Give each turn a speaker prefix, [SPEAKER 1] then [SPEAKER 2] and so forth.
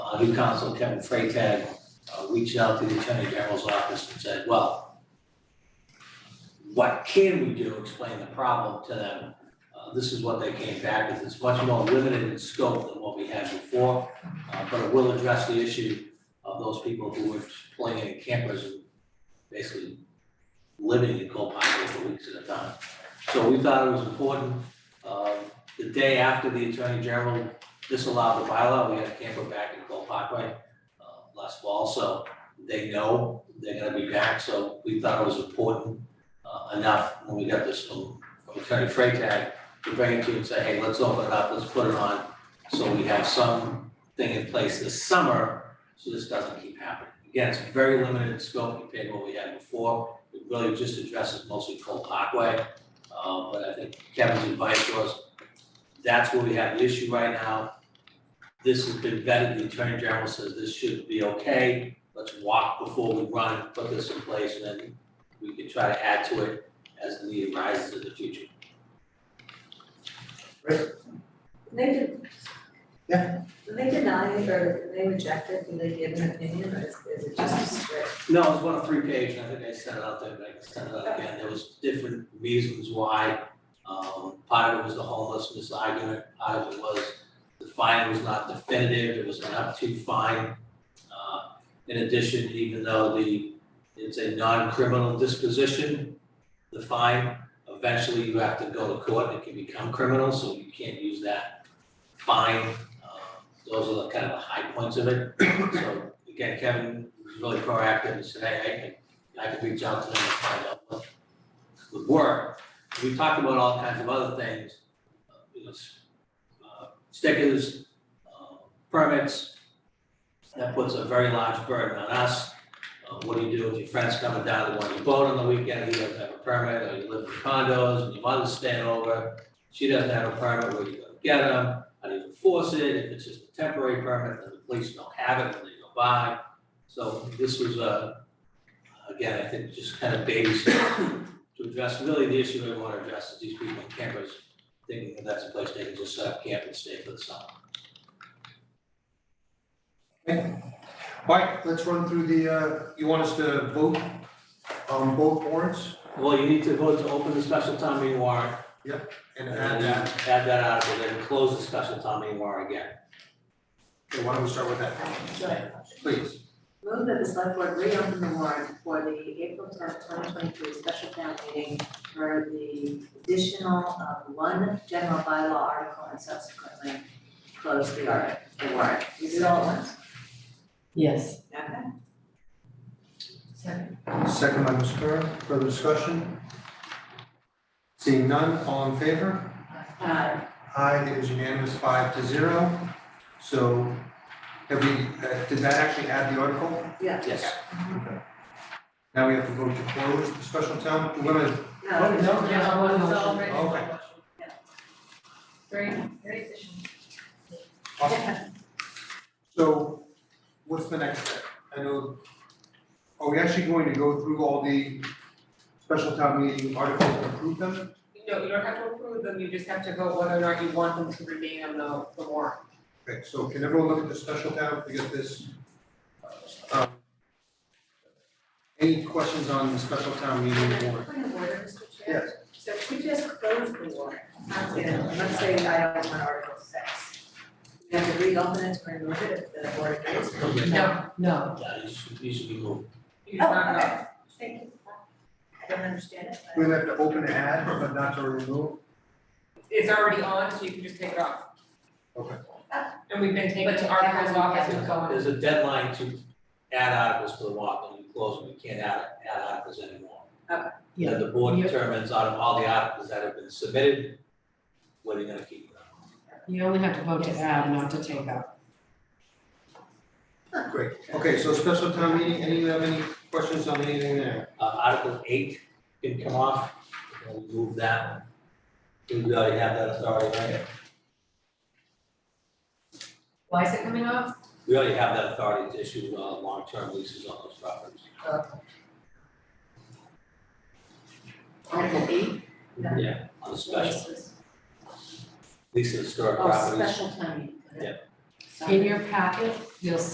[SPEAKER 1] uh, new counsel Kevin Freitag uh, reached out to the Attorney General's office and said, well, what can we do, explain the problem to them? Uh, This is what they came back with, it's much more limited in scope than what we had before, uh, but it will address the issue of those people who were playing in campers and basically living in Copilot for weeks at a time. So we thought it was important. Um, The day after the Attorney General disallowed the bylaw, we had a camper back in Cole Parkway uh, last fall, so they know they're gonna be back, so we thought it was important uh, enough when we got this from from Attorney Freitag to bring it to you and say, hey, let's open it up, let's put it on, so we have something in place this summer, so this doesn't keep happening. Again, it's very limited in scope compared to what we had before, it really just addresses mostly Cole Parkway. Uh, but I think Kevin's advice was, that's where we have the issue right now. This has been vetted, the Attorney General says this should be okay, let's walk before we run, put this in place, and then we can try to add to it as the need arises in the future.
[SPEAKER 2] They did.
[SPEAKER 3] Yeah.
[SPEAKER 2] Did they deny it or they reject it? Do they give an opinion or is is it just a script?
[SPEAKER 1] No, it's one of three page, and I think I sent it out there, but I can send it out again, there was different reasons why. Um, part of it was the homelessness argument, part of it was the fine was not definitive, it was an up to fine. Uh, in addition, even though the, it's a non-criminal disposition, the fine, eventually you have to go to court, and it can become criminal, so you can't use that fine. Uh, Those are the kind of the high points of it, so again, Kevin was really proactive and said, hey, I can, I can reach out to them and find out what would work. We talked about all kinds of other things, uh, you know, s- uh, stickers, uh, permits. That puts a very large burden on us. Uh, What do you do if your friend's coming down to one your boat on the weekend, he doesn't have a permit, or you live in condos, and your mother's staying over, she doesn't have a permit, where do you go get them? How do you enforce it? If it's just a temporary permit, then the police don't have it when they go by. So this was a, again, I think just kind of baby step to address, really the issue we want to address is these people in campers thinking that that's a place they can just set up camp and stay for the summer.
[SPEAKER 3] Alright, let's run through the, uh, you want us to vote on both warrants
[SPEAKER 1] Well, you need to vote to open the special town meeting warrant.
[SPEAKER 3] and add that?
[SPEAKER 1] Add that article, then close the special town meeting warrant again.
[SPEAKER 3] Okay, why don't we start with that, please?
[SPEAKER 2] Move that the select board reopen the warrant for the April tenth, twenty twenty-three special town meeting for the additional of one general bylaw article and subsequently close the art, the warrant. We do it all at once,
[SPEAKER 4] Yes.
[SPEAKER 2] okay? Second.
[SPEAKER 3] Second by Ms. Curran, further discussion? Seeing none, all in favor?
[SPEAKER 2] Uh,
[SPEAKER 3] Aye, it is unanimous, five to zero. So, have we, uh, did that actually add the article?
[SPEAKER 2] yeah,
[SPEAKER 1] Yes.
[SPEAKER 3] Now we have to vote to close the special town, we're gonna,
[SPEAKER 2] no,
[SPEAKER 3] Oh, no,
[SPEAKER 2] no,
[SPEAKER 4] no,
[SPEAKER 2] it's
[SPEAKER 4] no.
[SPEAKER 2] all right.
[SPEAKER 3] okay,
[SPEAKER 4] Very, very efficient.
[SPEAKER 3] awesome. So what's the next step? I know, are we actually going to go through all the special town meeting articles and approve them?
[SPEAKER 5] No, you don't have to approve them, you just have to vote whether or not you want them to remain on the, the warrant.
[SPEAKER 3] Okay, so can everyone look at the special town, we got this. um, Any questions on the special town meeting warrant?
[SPEAKER 2] Point of order, Mr. Chair.
[SPEAKER 3] Yes,
[SPEAKER 2] So if we just close the warrant, I'm gonna- let's say I don't want Article six. We have to reopen it to remove it if the board agrees.
[SPEAKER 5] No,
[SPEAKER 4] No,
[SPEAKER 1] Yeah, you should, you should be moved.
[SPEAKER 5] you do not know.
[SPEAKER 2] Thank you. I don't understand it,
[SPEAKER 3] we
[SPEAKER 2] but.
[SPEAKER 3] have to open to add, but not to remove.
[SPEAKER 5] It's already on, so you can just take it off.
[SPEAKER 3] Okay.
[SPEAKER 5] And we've been taking to articles off as we've gone.
[SPEAKER 1] There's a deadline to add articles to the warrant, and you close them, you can't add, add articles anymore.
[SPEAKER 2] Okay.
[SPEAKER 1] Then the board determines out of all the articles that have been submitted, what are you gonna keep?
[SPEAKER 4] you only have to vote to add, not to take out.
[SPEAKER 3] Great, okay, so special town meeting, any, have any questions on anything there?
[SPEAKER 1] Uh, Article eight can come off, we'll move that one. Do we already have that authority, right?
[SPEAKER 4] Why is it coming off?
[SPEAKER 1] We already have that authority to issue, uh, long-term leases on those properties.
[SPEAKER 2] Article eight? Yeah.
[SPEAKER 1] Yeah. On the special,
[SPEAKER 2] This is-
[SPEAKER 1] lease of historic
[SPEAKER 2] Oh,
[SPEAKER 1] properties.
[SPEAKER 2] special town meeting.
[SPEAKER 1] Yeah.
[SPEAKER 4] In your packet, you'll